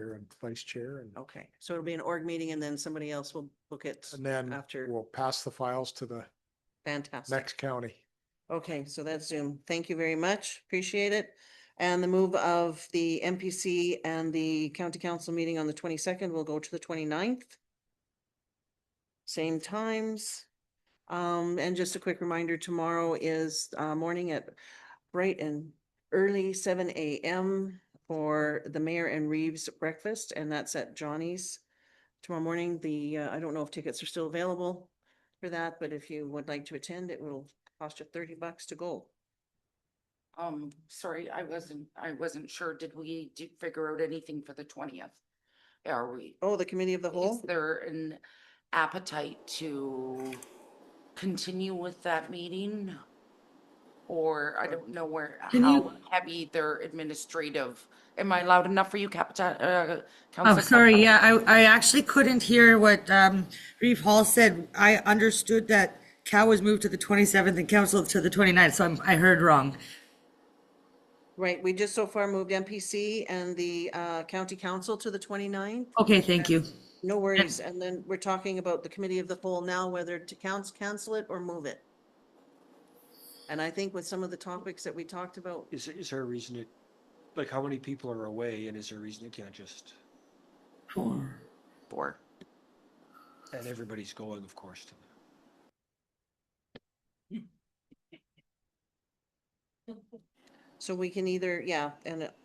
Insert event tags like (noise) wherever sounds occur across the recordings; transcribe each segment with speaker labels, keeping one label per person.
Speaker 1: chair and vice chair and,
Speaker 2: Okay, so it'll be an org meeting and then somebody else will book it.
Speaker 1: and then
Speaker 2: After-
Speaker 1: we'll pass the files to the
Speaker 2: Fantastic.
Speaker 1: next county.
Speaker 2: Okay, so that's Zoom. Thank you very much. Appreciate it. And the move of the MPC and the county council meeting on the twenty-second will go to the 29th. Same times. Um, and just a quick reminder, tomorrow is uh morning at bright and early seven AM for the mayor and Reeves breakfast, and that's at Johnny's. Tomorrow morning, the, uh, I don't know if tickets are still available for that, but if you would like to attend, it will cost you thirty bucks to go.
Speaker 3: Um, sorry, I wasn't, I wasn't sure. Did we do figure out anything for the twentieth? Are we,
Speaker 2: Oh, the committee of the
Speaker 3: is
Speaker 2: whole?
Speaker 3: there an appetite to continue with that meeting? Or I don't know where,
Speaker 4: Can
Speaker 3: how
Speaker 4: you-
Speaker 3: heavy their administrative, am I loud enough for you, Capita, uh,
Speaker 4: Oh,
Speaker 3: Councillor
Speaker 4: sorry,
Speaker 3: Capita?
Speaker 4: yeah, I, I actually couldn't hear what, um, Reeve Hall said. I understood that Cal was moved to the 27th and council to the 29th, so I'm, I heard wrong.
Speaker 2: Right, we just so far moved MPC and the uh county council to the 29th.
Speaker 4: Okay, thank you.
Speaker 2: No worries. And then we're talking about the committee of the whole now, whether to council cancel it or move it. And I think with some of the topics that we talked about,
Speaker 5: Is, is there a reason it, like, how many people are away and is there a reason it can't just,
Speaker 3: Four.
Speaker 5: and everybody's going, of course, to the-
Speaker 2: so we can either, yeah, and it-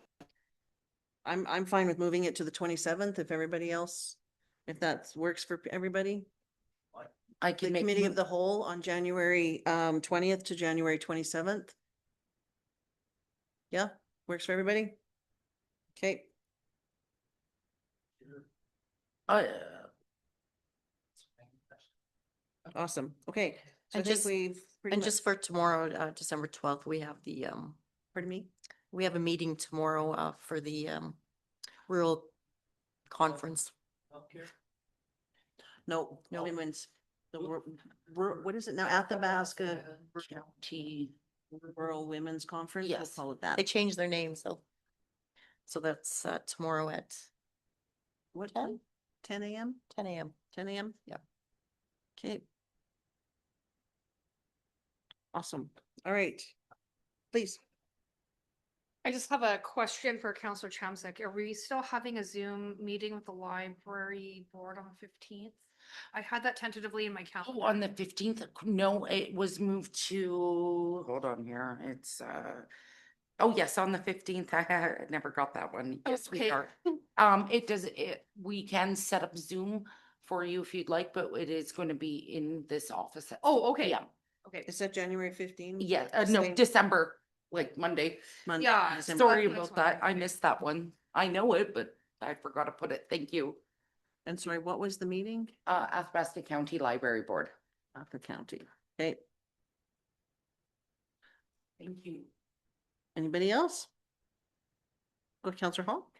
Speaker 2: I'm, I'm fine with moving it to the 27th if everybody else, if that works for everybody.
Speaker 3: I
Speaker 2: The
Speaker 3: can make.
Speaker 2: committee
Speaker 3: mo-
Speaker 2: of the whole on January um twentieth to January twenty-seventh. Yeah, works for everybody? Okay,
Speaker 3: Uh,
Speaker 2: awesome. Okay. So I
Speaker 6: And
Speaker 2: think
Speaker 6: just-
Speaker 2: we've. pretty
Speaker 6: And
Speaker 2: much-
Speaker 6: just for tomorrow, uh, December twelfth, we have the, um,
Speaker 2: Pardon me?
Speaker 6: we have a meeting tomorrow, uh, for the, um, rural conference.
Speaker 2: No, no
Speaker 6: No.
Speaker 2: women's. The wor- wor- what is it now? Athabasca
Speaker 3: County.
Speaker 2: Rural Women's Conference, we'll
Speaker 3: Yes.
Speaker 2: call it that.
Speaker 6: They changed their name, so. So that's, uh, tomorrow at
Speaker 2: What,
Speaker 6: ten?
Speaker 2: time? ten AM,
Speaker 6: ten AM.
Speaker 2: ten AM?
Speaker 6: Yep.
Speaker 2: Okay. Awesome. All right. Please.
Speaker 7: I just have a question for Counselor Chomsek. Are we still having a Zoom meeting with the library board on the fifteenth? I had that tentatively in my
Speaker 3: Oh,
Speaker 7: calendar.
Speaker 3: on the fifteenth, no, it was moved to, hold on here, it's, uh, oh, yes, on the fifteenth, (laughs) I had- never got that one. Yes, we
Speaker 7: Okay.
Speaker 3: are. Um, it does, it, we can set up Zoom for you if you'd like, but it is going to be in this office. at
Speaker 7: Oh,
Speaker 3: 6
Speaker 7: okay.
Speaker 3: p.m.
Speaker 7: Okay.
Speaker 2: Is that January fifteenth?
Speaker 3: Yeah, uh, no,
Speaker 2: Same.
Speaker 3: December, like Monday.
Speaker 2: Monday,
Speaker 7: Yeah,
Speaker 2: December.
Speaker 3: Sorry
Speaker 7: That's
Speaker 3: about
Speaker 7: what I
Speaker 3: that. I
Speaker 7: meant.
Speaker 3: missed that one. I know it, but I forgot to put it. Thank you.
Speaker 2: And sorry, what was the meeting?
Speaker 3: Uh, Athabasca County Library Board.
Speaker 2: Upper County. Okay,
Speaker 3: Thank you.
Speaker 2: anybody else? Go Counselor Hall,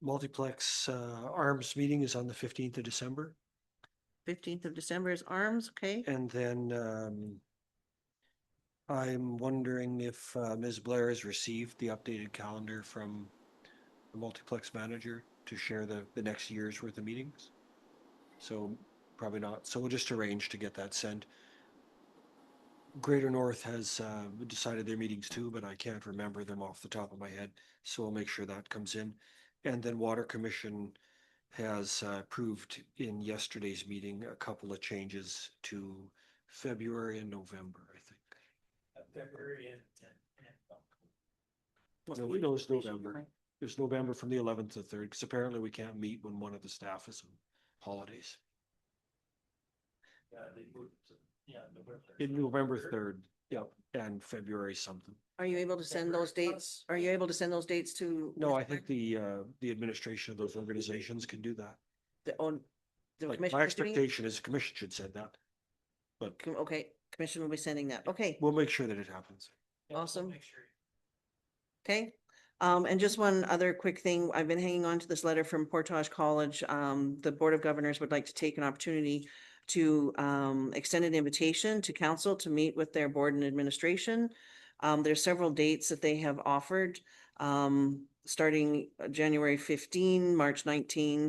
Speaker 5: multiplex, uh, arms meeting is on the fifteenth of December.
Speaker 2: fifteenth of December is arms, okay?
Speaker 5: And then, um, I'm wondering if, uh, Ms. Blair has received the updated calendar from the multiplex manager to share the, the next year's worth of meetings. So probably not. So we'll just arrange to get that sent. Greater North has, uh, decided their meetings too, but I can't remember them off the top of my head. So we'll make sure that comes in. And then Water Commission has uh, approved in yesterday's meeting a couple of changes to February and November, I think.
Speaker 8: February and, and uh,
Speaker 5: No, it was November. It was November from the eleventh to third, because apparently we can't meet when one of the staff is on holidays.
Speaker 8: uh, they moved to, yeah, November.
Speaker 5: In November third, yep, and February something.
Speaker 2: Are you able to send those
Speaker 8: February.
Speaker 2: dates? Are you able to send those dates to?
Speaker 5: No,
Speaker 2: Ms.
Speaker 5: I think
Speaker 2: Blair?
Speaker 5: the, uh, the administration of those organizations can do that.
Speaker 2: The on. the
Speaker 5: Like, my
Speaker 2: commissioners doing it?
Speaker 5: expectation is the commission should send that. But
Speaker 2: Com- Okay, commission will be sending that, okay.
Speaker 5: we'll make sure that it happens.
Speaker 8: Yeah, we'll
Speaker 2: Awesome.
Speaker 8: Make sure.
Speaker 2: Okay, um, and just one other quick thing, I've been hanging on to this letter from Portage College. Um, the Board of Governors would like to take an opportunity to, um, extend an invitation to council to meet with their board and administration. Um, there's several dates that they have offered. Um, starting uh, January fifteen, March nineteen,